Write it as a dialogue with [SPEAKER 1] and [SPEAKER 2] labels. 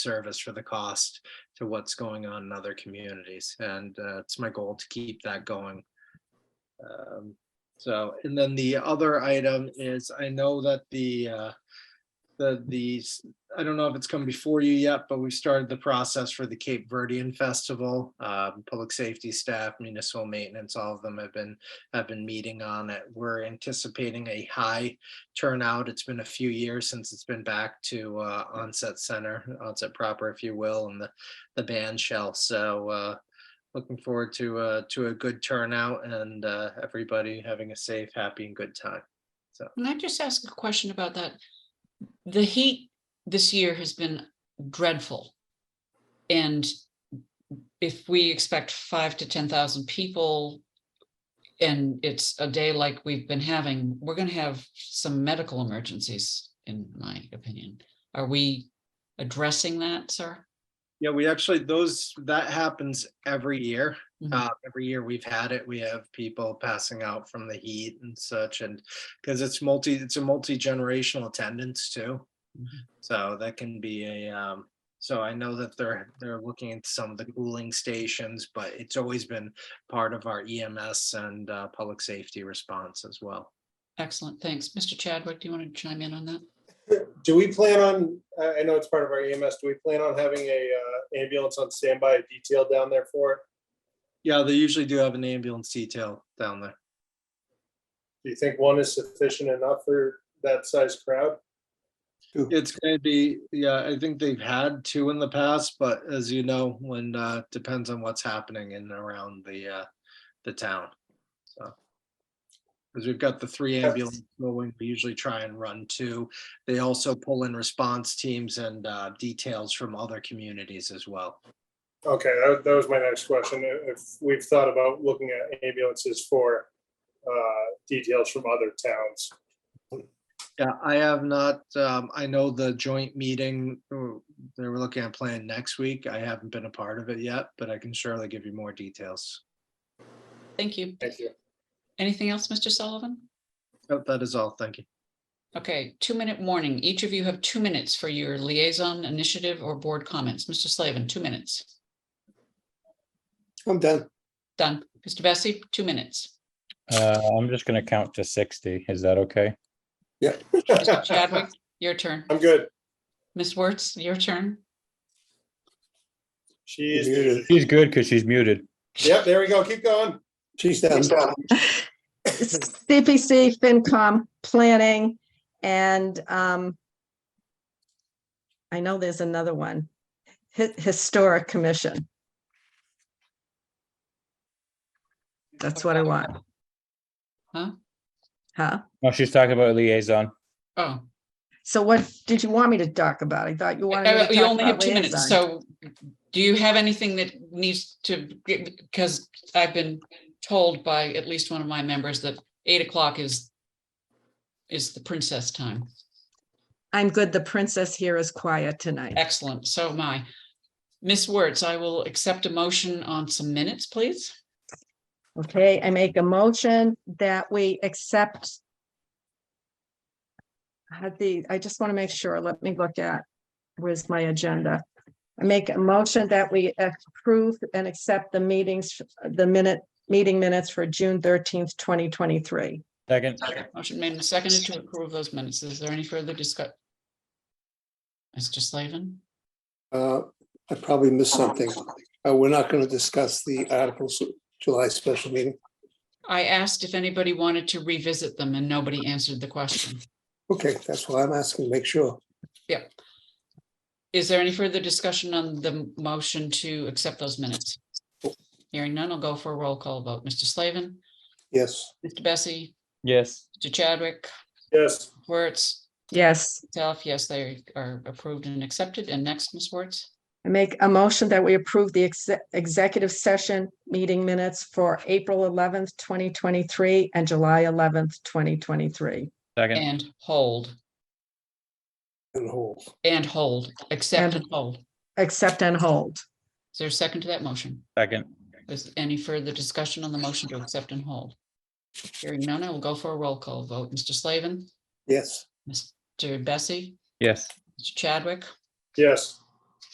[SPEAKER 1] service for the cost to what's going on in other communities. And uh, it's my goal to keep that going. Um, So, and then the other item is, I know that the, uh, the, the, I don't know if it's come before you yet, but we've started the process for the Cape Verdean Festival. Um, Public safety staff, municipal maintenance, all of them have been, have been meeting on it. We're anticipating a high turnout. It's been a few years since it's been back to uh, onset center, onset proper, if you will, and the, the band shell. So uh, looking forward to, uh, to a good turnout and uh, everybody having a safe, happy and good time.
[SPEAKER 2] Can I just ask a question about that? The heat this year has been dreadful. And if we expect five to ten thousand people. And it's a day like we've been having, we're gonna have some medical emergencies, in my opinion. Are we addressing that, sir?
[SPEAKER 1] Yeah, we actually, those, that happens every year.
[SPEAKER 2] Mhm.
[SPEAKER 1] Uh, every year we've had it, we have people passing out from the heat and such and because it's multi, it's a multi-generational attendance too.
[SPEAKER 2] Mhm.
[SPEAKER 1] So that can be a, um, so I know that they're, they're looking into some of the cooling stations, but it's always been part of our EMS and, uh, public safety response as well.
[SPEAKER 2] Excellent, thanks. Mr. Chadwick, do you want to chime in on that?
[SPEAKER 3] Do we plan on, I I know it's part of our EMS, do we plan on having a uh, ambulance on standby detail down there for? it?
[SPEAKER 1] Yeah, they usually do have an ambulance detail down there.
[SPEAKER 3] Do you think one is sufficient enough for that size crowd?
[SPEAKER 1] It's gonna be, yeah, I think they've had two in the past, but as you know, when, uh, depends on what's happening in and around the, uh, the town, so. Cause we've got the three
[SPEAKER 3] Yes.
[SPEAKER 1] ambulance going, we usually try and run two. They also pull in response teams and, uh, details from other communities as well.
[SPEAKER 3] Okay, that that was my next question. If if we've thought about looking at ambulances for uh, details from other towns.
[SPEAKER 1] Yeah, I have not, um, I know the joint meeting, uh, they were looking at plan next week. I haven't been a part of it yet, but I can surely give you more details.
[SPEAKER 2] Thank you.
[SPEAKER 3] Thank you.
[SPEAKER 2] Anything else, Mr. Sullivan?
[SPEAKER 1] Oh, That is all, thank you.
[SPEAKER 2] Okay, two-minute warning. Each of you have two minutes for your liaison initiative or board comments. Mr. Slavin, two minutes.
[SPEAKER 4] I'm done.
[SPEAKER 2] Done. Mr. Bessie, two minutes.
[SPEAKER 5] Uh, I'm just gonna count to sixty. Is that okay?
[SPEAKER 4] Yeah.
[SPEAKER 2] Mr. Chadwick, your turn.
[SPEAKER 3] I'm good.
[SPEAKER 2] Ms. Wertz, your turn.
[SPEAKER 3] She's,
[SPEAKER 4] Muted.
[SPEAKER 5] She's good because she's muted.
[SPEAKER 3] yep, there we go. Keep going.
[SPEAKER 4] She's done.
[SPEAKER 6] CPC, FinCom, planning, and um, I know there's another one, Hi- Historic Commission. That's what I want.
[SPEAKER 2] Huh?
[SPEAKER 6] Huh?
[SPEAKER 5] No, she's talking about liaison.
[SPEAKER 2] Oh,
[SPEAKER 6] So what did you want me to talk about? I thought you wanted. me
[SPEAKER 2] uh,
[SPEAKER 6] to
[SPEAKER 2] you
[SPEAKER 6] talk
[SPEAKER 2] only
[SPEAKER 6] about
[SPEAKER 2] have two minutes,
[SPEAKER 6] liaison.
[SPEAKER 2] so do you have anything that needs to, because I've been told by at least one of my members that eight o'clock is is the princess time.
[SPEAKER 6] I'm good. The princess here is quiet tonight.
[SPEAKER 2] Excellent, so am I. Ms. Wertz, I will accept a motion on some minutes, please.
[SPEAKER 6] Okay, I make a motion that we accept. I Had the, I just want to make sure, let me look at, where's my agenda? I make a motion that we approve and accept the meetings, the minute, meeting minutes for June thirteenth, twenty twenty-three.
[SPEAKER 5] Second,
[SPEAKER 2] Motion made and seconded to approve those minutes. Is there any further discussion? Mr. Slavin?
[SPEAKER 4] Uh, I probably missed something. Uh, We're not going to discuss the articles of July special meeting.
[SPEAKER 2] I asked if anybody wanted to revisit them and nobody answered the question.
[SPEAKER 4] Okay, that's why I'm asking, make sure.
[SPEAKER 2] Is there any further discussion on the motion to accept those minutes? Hearing none, I'll go for a roll call vote. Mr. Slavin,
[SPEAKER 4] Yes,
[SPEAKER 2] Mr. Bessie,
[SPEAKER 5] yes,
[SPEAKER 2] Mr. Chadwick,
[SPEAKER 3] Yes,
[SPEAKER 2] Wertz,
[SPEAKER 6] Yes,
[SPEAKER 2] self, yes, they are approved and accepted. And next, Ms. Wertz?
[SPEAKER 6] I make a motion that we approve the exe- executive session meeting minutes for April eleventh, twenty twenty-three and July eleventh, twenty twenty-three.
[SPEAKER 5] second,
[SPEAKER 2] And hold,
[SPEAKER 4] and hold.
[SPEAKER 2] and hold, accept
[SPEAKER 6] And-
[SPEAKER 2] and hold.
[SPEAKER 6] Accept and hold.
[SPEAKER 2] Is there a second to that motion?
[SPEAKER 5] second,
[SPEAKER 2] Is any further discussion on the motion to accept and hold? Hearing none, I will go for a roll call vote. Mr. Slavin,
[SPEAKER 4] Yes,
[SPEAKER 2] Mr. Bessie,
[SPEAKER 5] yes,
[SPEAKER 2] Mr. Chadwick,
[SPEAKER 3] yes,